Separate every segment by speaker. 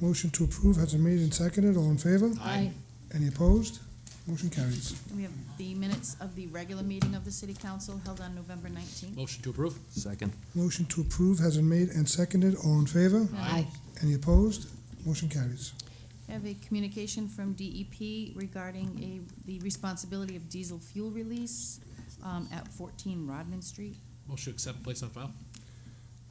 Speaker 1: Motion to approve has been made and seconded. All in favor?
Speaker 2: Aye.
Speaker 1: Any opposed? Motion carries.
Speaker 3: We have the minutes of the regular meeting of the city council held on November nineteenth.
Speaker 2: Motion to approve?
Speaker 4: Second.
Speaker 1: Motion to approve has been made and seconded. All in favor?
Speaker 2: Aye.
Speaker 1: Any opposed? Motion carries.
Speaker 3: I have a communication from DEP regarding a, the responsibility of diesel fuel release um, at fourteen Rodman Street.
Speaker 2: Motion to accept and place on file?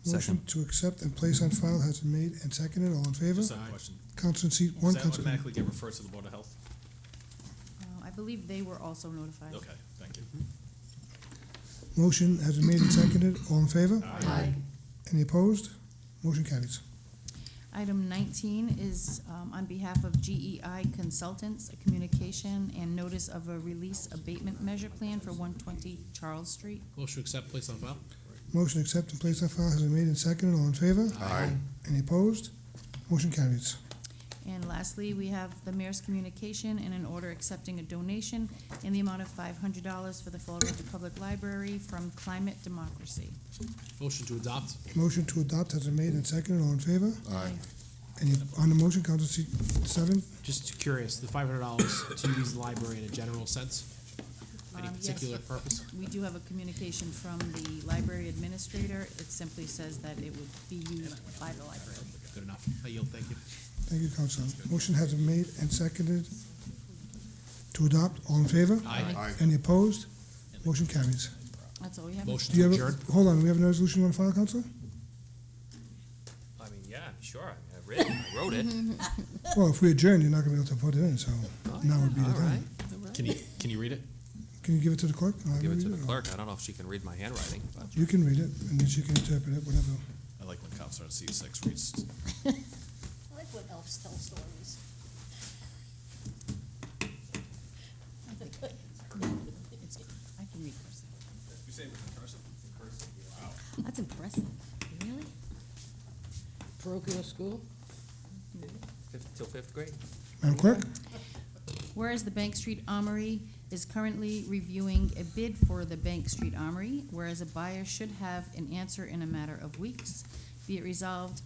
Speaker 1: Motion
Speaker 4: Second.
Speaker 1: to accept and place on file has been made and seconded. All in
Speaker 2: Hmm?
Speaker 1: favor?
Speaker 5: Just a question.
Speaker 1: Council in seat
Speaker 5: Does
Speaker 1: one,
Speaker 5: that
Speaker 1: Council.
Speaker 5: automatically get referred to the Board of Health?
Speaker 3: Uh, I believe they were also notified.
Speaker 5: Okay, thank you.
Speaker 1: Motion has been made and seconded. All in favor?
Speaker 2: Aye.
Speaker 1: Any opposed? Motion carries.
Speaker 3: Item nineteen is um, on behalf of GEI Consultants, a communication and notice of a release abatement measure plan for one twenty Charles Street.
Speaker 2: Motion to accept and place on file?
Speaker 1: Motion to accept and place on file has been made and seconded. All in favor?
Speaker 2: Aye.
Speaker 1: Any opposed? Motion carries.
Speaker 3: And lastly, we have the mayor's communication and an order accepting a donation in the amount of five hundred dollars for the Fall River Public Library from Climate Democracy.
Speaker 2: Motion to adopt?
Speaker 1: Motion to adopt has been made and seconded. All in favor?
Speaker 3: Aye.
Speaker 1: Any, on the motion, Council seat seven?
Speaker 2: Just curious, the five hundred dollars to use the library in a general sense? Any
Speaker 3: Um, yes.
Speaker 2: particular purpose?
Speaker 3: We do have a communication from the library administrator. It simply says that it would be used by the library.
Speaker 2: Good enough. I yield, thank you.
Speaker 1: Thank you, Council. Motion has been made and seconded to adopt. All in favor?
Speaker 2: Aye.
Speaker 1: Any opposed? Motion carries.
Speaker 3: That's all we have.
Speaker 2: Motion
Speaker 1: Do you
Speaker 2: to
Speaker 1: have,
Speaker 2: adjourn?
Speaker 1: a- hold on, we have a resolution on file, Council?
Speaker 6: I mean, yeah, sure. I mean, I read it. I wrote it.
Speaker 1: Well, if we adjourn, you're not gonna be able to put it in, so now would be the
Speaker 6: Oh, All right.
Speaker 1: time.
Speaker 2: Can you, can you read it?
Speaker 1: Can you give it to the clerk? I'll have
Speaker 6: Give
Speaker 1: her
Speaker 6: it to
Speaker 1: read
Speaker 6: the clerk. I don't know if she can read my handwriting, but
Speaker 1: You can read it, and then she can interpret it, whatever.
Speaker 5: I like when cops are on C six reads.
Speaker 7: I like when elves tell stories.
Speaker 3: It's- I can read first.
Speaker 5: You say it was in cursive? Wow.
Speaker 7: That's impressive. Really?
Speaker 8: parochial school?
Speaker 6: fifth, till fifth grade.
Speaker 1: Madam Clerk?
Speaker 3: Whereas the Bank Street Armory is currently reviewing a bid for the Bank Street Armory, whereas a buyer should have an answer in a matter of weeks, be it resolved,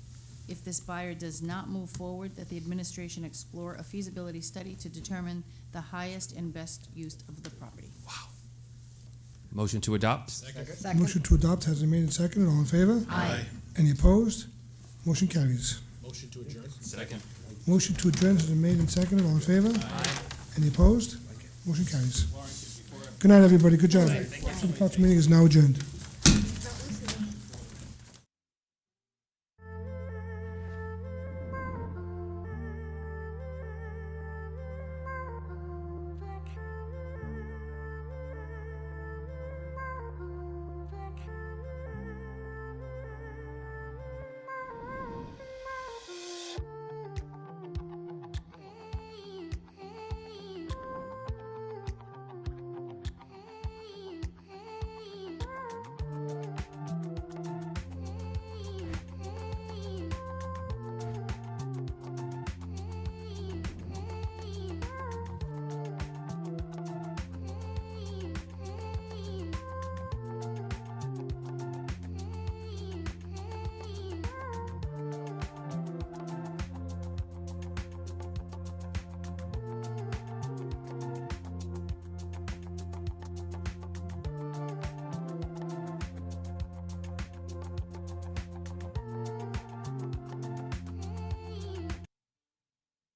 Speaker 3: if this buyer does not move forward, that the administration explore a feasibility study to determine the highest and best use of the property.
Speaker 6: Motion to adopt.
Speaker 1: Motion to adopt has been made and seconded. All in favor?
Speaker 3: Aye.
Speaker 1: Any opposed? Motion carries.
Speaker 2: Motion to adjourn?
Speaker 6: Second.
Speaker 1: Motion to adjourn has been made and seconded. All in favor? Any opposed? Motion carries. Good night, everybody. Good job. City Council meeting is now adjourned.